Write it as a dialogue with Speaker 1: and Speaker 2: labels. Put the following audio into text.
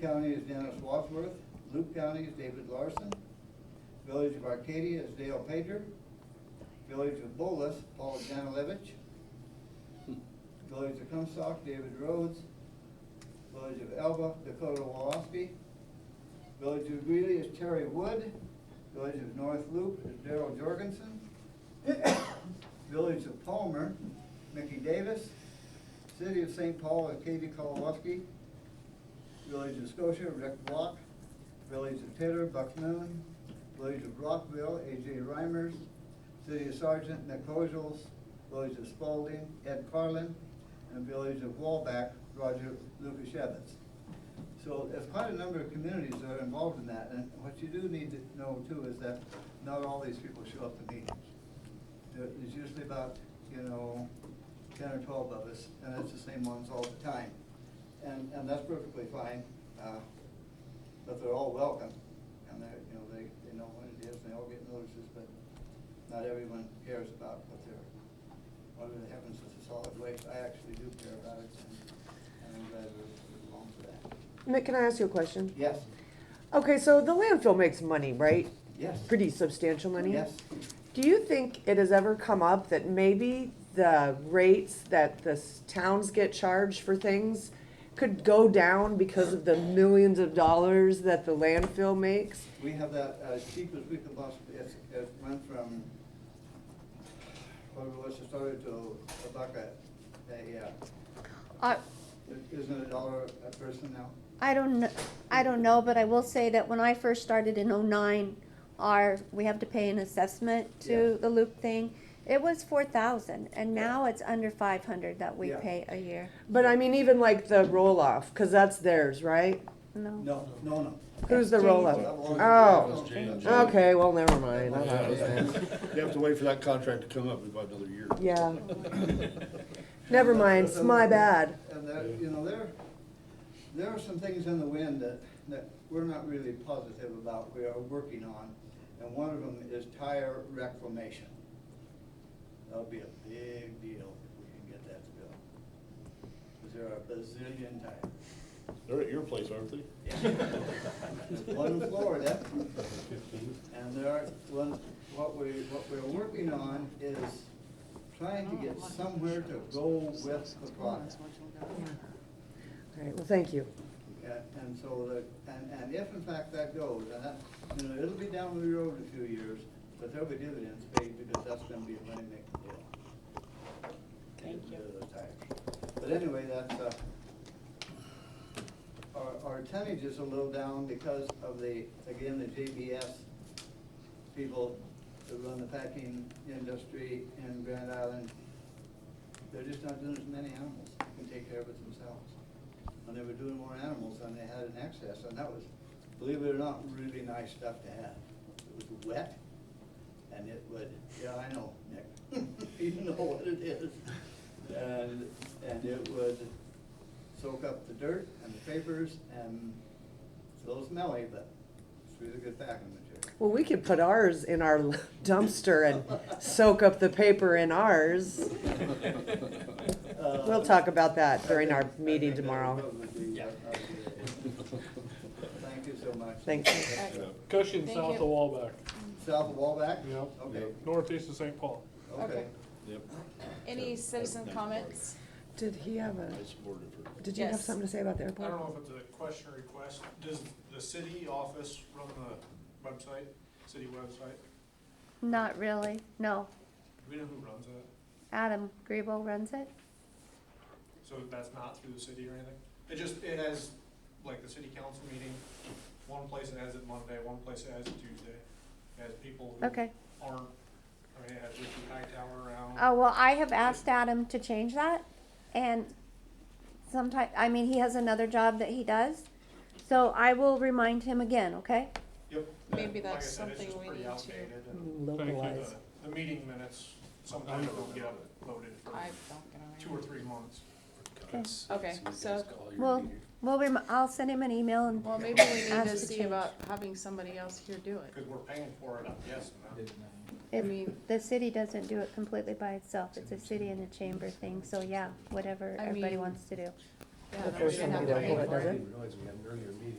Speaker 1: County is Dennis Wadsworth, Luke County is David Larson, Village of Arcadia is Dale Pager, Village of Bolus, Paul Janilevich, Village of Comstock, David Rhodes, Village of Elba, Dakota Woloski, Village of Greeley is Terry Wood, Village of North Loop is Daryl Jorgensen, Village of Palmer, Mickey Davis, City of St. Paul is Katie Kowalski, Village of Scotia, Rick Block. Village of Taylor, Buck Moon. Village of Rockville, AJ Reimers. City of Sergeant, Nick Hojels. Village of Spalding, Ed Carlin. And Village of Wallback, Roger Lucas So there's quite a number of communities that are involved in that. And what you do need to know too is that not all these people show up to meetings. There- There's usually about, you know, ten or twelve of us, and it's the same ones all the time. And, and that's perfectly fine, uh, but they're all welcome, and they're, you know, they, they know what it is, and they all get notices, but not everyone cares about what they're, what really happens with the solid waste. I actually do care about it, and, and I'm glad we're along for that.
Speaker 2: Nick, can I ask you a question?
Speaker 1: Yes,
Speaker 2: Okay, so the landfill makes money, right?
Speaker 1: yes.
Speaker 2: Pretty substantial money?
Speaker 1: Yes,
Speaker 2: Do you think it has ever come up that maybe the rates that the s- towns get charged for things could go down because of the millions of dollars that the landfill makes?
Speaker 1: we have that as cheap as we could possibly, it, it went from, what was it started to a bucket, a, uh,
Speaker 3: I,
Speaker 1: isn't it a dollar a person now?
Speaker 3: I don't, kn- I don't know, but I will say that when I first started in oh-nine, our, we have to pay an assessment
Speaker 1: Yeah.
Speaker 3: to the loop thing. It was four thousand, and
Speaker 1: Yeah.
Speaker 3: now it's under five hundred that we
Speaker 1: Yeah.
Speaker 3: pay a year,
Speaker 2: But I mean, even like the roll off, because that's theirs, right?
Speaker 3: no?
Speaker 1: No, no, no.
Speaker 2: Who's the
Speaker 3: That's
Speaker 2: roll
Speaker 3: Jane's.
Speaker 2: off? Oh,
Speaker 4: Jane.
Speaker 2: okay, well, never mind. I thought it was them.
Speaker 4: You have to wait for that contract to come up in about another year.
Speaker 2: Yeah. Never mind, it's my bad.
Speaker 1: And that, you know, there, there are some things in the wind that, that we're not really positive about, we are working on. And one of them is tire reclamation. That'll be a big deal if we can get that to go. Cause there are a bazillion tires.
Speaker 4: They're at your place, aren't they?
Speaker 1: There's one in Florida, and there are, one, what we, what we're working on is trying to get somewhere to go with the product.
Speaker 2: All right, well, thank you.
Speaker 1: Yeah, and so the, and, and if in fact that goes, and that, you know, it'll be down the road a few years, but there'll be dividends paid because that's gonna be a money making deal. Thank you. But anyway, that's, uh, our, our tonnage is a little down because of the, again, the JBS people that run the packing industry in Grand Island. They're just not doing as many animals, They can take care of it themselves and they were doing more animals than they had in excess, and that was, believe it or not, really nice stuff to have. It was wet, and it would, yeah, I know, Nick, you know what it is. And, and it would soak up the dirt and the papers, and it's a little smelly, but it's really good packing material.
Speaker 2: Well, we could put ours in our dumpster and soak up the paper in ours.
Speaker 4: Uh,
Speaker 2: We'll talk about that during our meeting tomorrow.
Speaker 1: Thank you so much.
Speaker 2: Thank you.
Speaker 5: Cushing,
Speaker 6: Thank
Speaker 5: south of
Speaker 6: you.
Speaker 5: Wallback.
Speaker 1: South of Wallback?
Speaker 5: Yep.
Speaker 1: Okay,
Speaker 5: Northeast of St. Paul.
Speaker 1: okay.
Speaker 6: Okay.
Speaker 4: Yep.
Speaker 6: Any
Speaker 4: So,
Speaker 6: citizen
Speaker 4: that's
Speaker 6: comments?
Speaker 2: Did he have a,
Speaker 4: I supported her.
Speaker 2: did you have
Speaker 6: Yes.
Speaker 2: something to say about the
Speaker 7: I don't
Speaker 2: airport?
Speaker 7: know if it's a question or request. Does the city office run the website, city website?
Speaker 3: Not really, no.
Speaker 7: Do we know who runs it?
Speaker 3: Adam Grebo runs it.
Speaker 7: So that's not through the city or anything? It just, it has, like, the city council meeting, one place it has it Monday, one place it has it Tuesday. It has people who aren't,
Speaker 3: Okay.
Speaker 7: I mean, it has Ricky Hightower around.
Speaker 3: Oh, well, I have asked Adam to change that, and sometime, I mean, he has another job that he does. So I will remind him again, okay?
Speaker 7: Yep.
Speaker 6: Maybe
Speaker 7: Like I
Speaker 6: that's
Speaker 7: said, it's
Speaker 6: something
Speaker 7: just
Speaker 6: we
Speaker 7: pretty
Speaker 6: need to,
Speaker 7: outdated and
Speaker 2: Mm. Localized.
Speaker 7: the- The meeting minutes sometimes don't get uploaded
Speaker 6: I
Speaker 7: for
Speaker 6: don't get
Speaker 7: two or three months.
Speaker 6: Okay, so,
Speaker 3: Well, we'll rem- I'll send him an email and,
Speaker 6: well, maybe we need
Speaker 3: Ask
Speaker 6: to
Speaker 3: for
Speaker 6: see
Speaker 3: change.
Speaker 6: about having somebody else here do it.
Speaker 7: Because we're paying for it, I'm guessing. huh?
Speaker 6: I
Speaker 3: if
Speaker 6: mean,
Speaker 3: the city doesn't do it completely by itself, it's a city and a chamber thing, so yeah, whatever
Speaker 6: I
Speaker 3: everybody
Speaker 6: mean-
Speaker 3: wants to do.
Speaker 6: Yeah,
Speaker 2: The
Speaker 6: that
Speaker 2: first one
Speaker 6: should
Speaker 2: we
Speaker 6: happen.
Speaker 2: don't hold it, does it?
Speaker 4: Realize we had an earlier meeting.